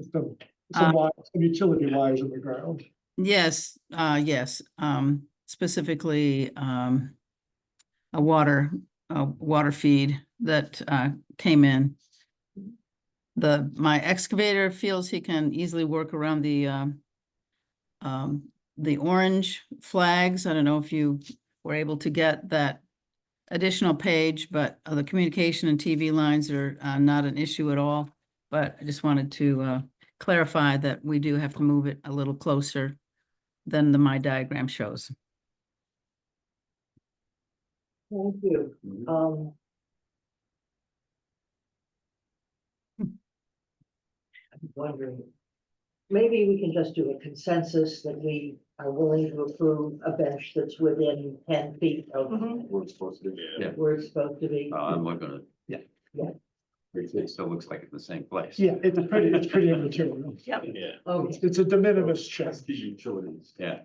Some, some Uh, wires, some utility wires in the ground. Yes, uh, yes, um, specifically, um, a water, a water feed that, uh, came in. The, my excavator feels he can easily work around the, um, um, the orange flags. I don't know if you were able to get that additional page, but uh, the communication and TV lines are, uh, not an issue at all. But I just wanted to, uh, clarify that we do have to move it a little closer than the my diagram shows. Thank you, Mhm. um. I'm wondering, maybe we can just do a consensus that we are willing to approve a bench that's within ten feet of We're supposed to. Yeah. where it's supposed to be. Mm-hmm. Uh, I'm looking at. Yeah. Yeah. It still looks like it's the same place. Yeah, it's pretty, it's pretty immaterial. Yeah. It's, Okay, it's a de minimis check. utilities. Yeah.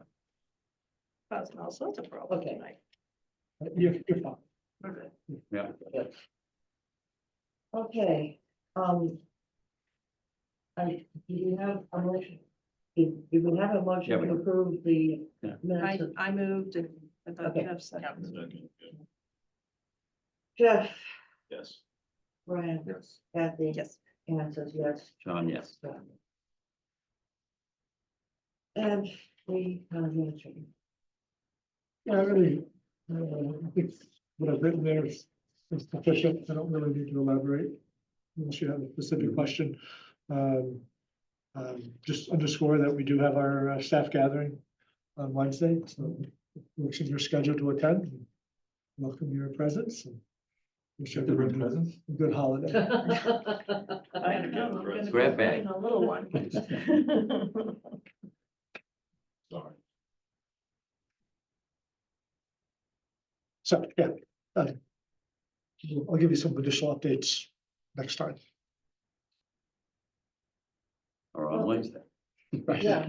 causing all sorts of problems Okay. tonight. You're, you're fine. Yeah. okay, um. I, do you have a motion? Do do we have a Yeah, motion we- to approve the Yeah. I, minutes? of- I moved and I thought Okay. Jeff said. Jeff, Yes. Brian, Yes. Kathy, Yes, Anne says yes. John, yes. And we kind of mentioned. Yeah, I really, uh, I think what I've written there is is sufficient. I don't really need to elaborate. Unless you have a specific question. Um, um, just underscore that we do have our uh, staff gathering on Wednesday, so works in your schedule to attend. Welcome your presence. and Wish everyone a good holiday. I don't know. I'm gonna be Grab bag. holding A little one. Sorry. So, yeah. uh, I'll give you some additional updates next time. Or on Wednesday. Yeah.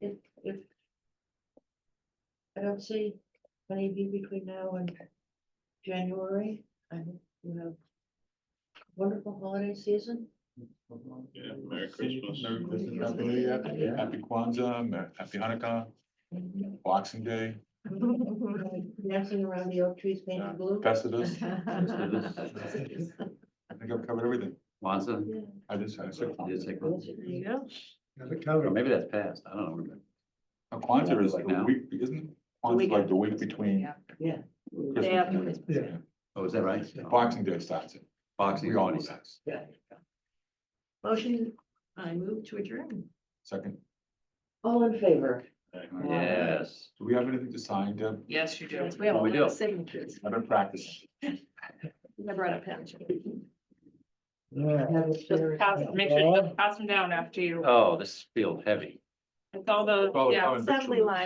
If, if. I don't see any be between now and January. I hope you have a wonderful holiday season. Yeah, Merry Christmas. Merry Christmas, Christmas. Happy New Year, Yeah. Happy Kwanzaa, Mer- Happy Hanukkah, Boxing Day, Dancing around the oak trees Yeah. painted blue. Festivus, Yes, I think I've covered everything. Kwanzaa. Yeah. I just, I said Did it Kwanzaa. say Kwanzaa? There There you you go. Yeah, the Or calendar. maybe that's past. I don't know. Now, Kwanzaa is Like the now? week, isn't Kwanzaa like the week between Yeah. go. Yeah. Christmas Day after and New Year? Christmas. Oh, is that right? Yeah. Boxing Day starts it. Boxing. We all know Day. that. Yeah. Motion, I move to adjourn. Second, All in favor? Yes. do we have anything to sign, Deb? Yes, you do. We have a Oh, we lot of do. signatures. I've been practicing. I brought a pen. Yeah. Have a Just fair- pass, make sure, you just pass them down after you, Oh, this feels heavy. it's all those, Well, yeah. oh, and Assembly victuals. line.